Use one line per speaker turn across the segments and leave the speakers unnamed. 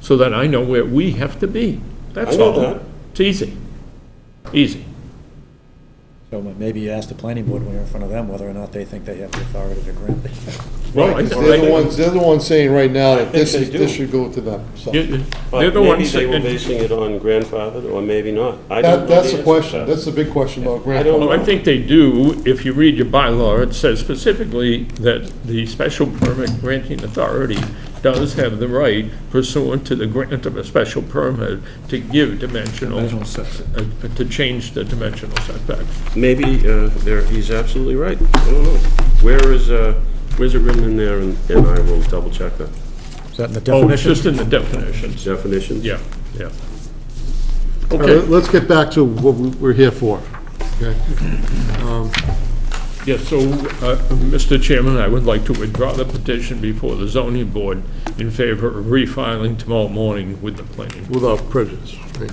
so that I know where we have to be. That's
I know
all.
that.
It's easy. Easy.
So maybe you ask the planning board when you're in front of them whether or not they think they have the authority to grant it.
Well, I-
Right, 'cause
They're the
I-
ones, they're the ones saying right now that
think
this
they
is, this
do.
should go to them, so.
you- you- They're
But
the
maybe
ones.
they were
that-
basing it on grandfathered, or maybe not. I don't know
That, that's the
answer to
question,
that.
that's the big question about
I don't
Well,
grandfather.
I think they do. If you read your bylaw, it says specifically that the special permit granting authority does have the right pursuant to the grant of a special permit to give dimensional, uh, to change the dimensional setbacks.
Maybe uh, there, he's absolutely right. I don't know. Where is, uh, where's it written in there? And and I will double check the
Is that in the
Oh, it's
definition?
just in the definitions.
definitions.
Yeah, yeah.
All
Okay,
right, Let's get back to what we- we're here for, okay?
yes, so, uh, Mr. Chairman, I would like to withdraw the petition before the zoning board in favor of refiling tomorrow morning with the planning. board.
Without prejudice, right?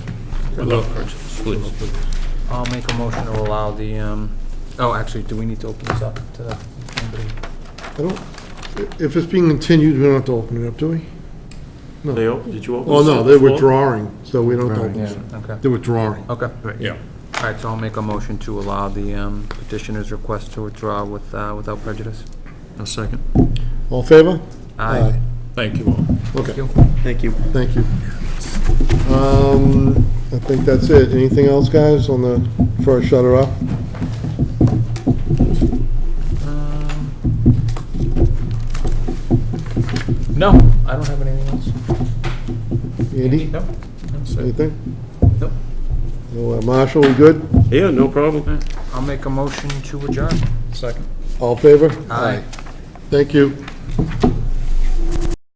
Without prejudice, please.
I'll make a motion to allow the, um, oh, actually, do we need to open this up to anybody?
I don't, if it's being continued, we don't have to open it up, do we?
They, op- did you open?
Oh,
this
no,
up
they're
before?
withdrawing, so we don't have to open it.
Okay,
They're withdrawing.
okay.
Yeah.
All right, so I'll make a motion to allow the um, petitioner's request to withdraw with, uh, without prejudice.
A second.
All in favor?
Aye.
Thank you all.
Okay,
Thank you.
thank you. Um, I think that's it. Anything else, guys, on the, before I shut her up?
Um, No, I don't have anything else.
Andy,
No?
anything?
Nope.
No, uh, Marshall, we good?
Yeah, no problem.
I'll make a motion to adjourn. Second.
All in favor?
Aye.
Thank you.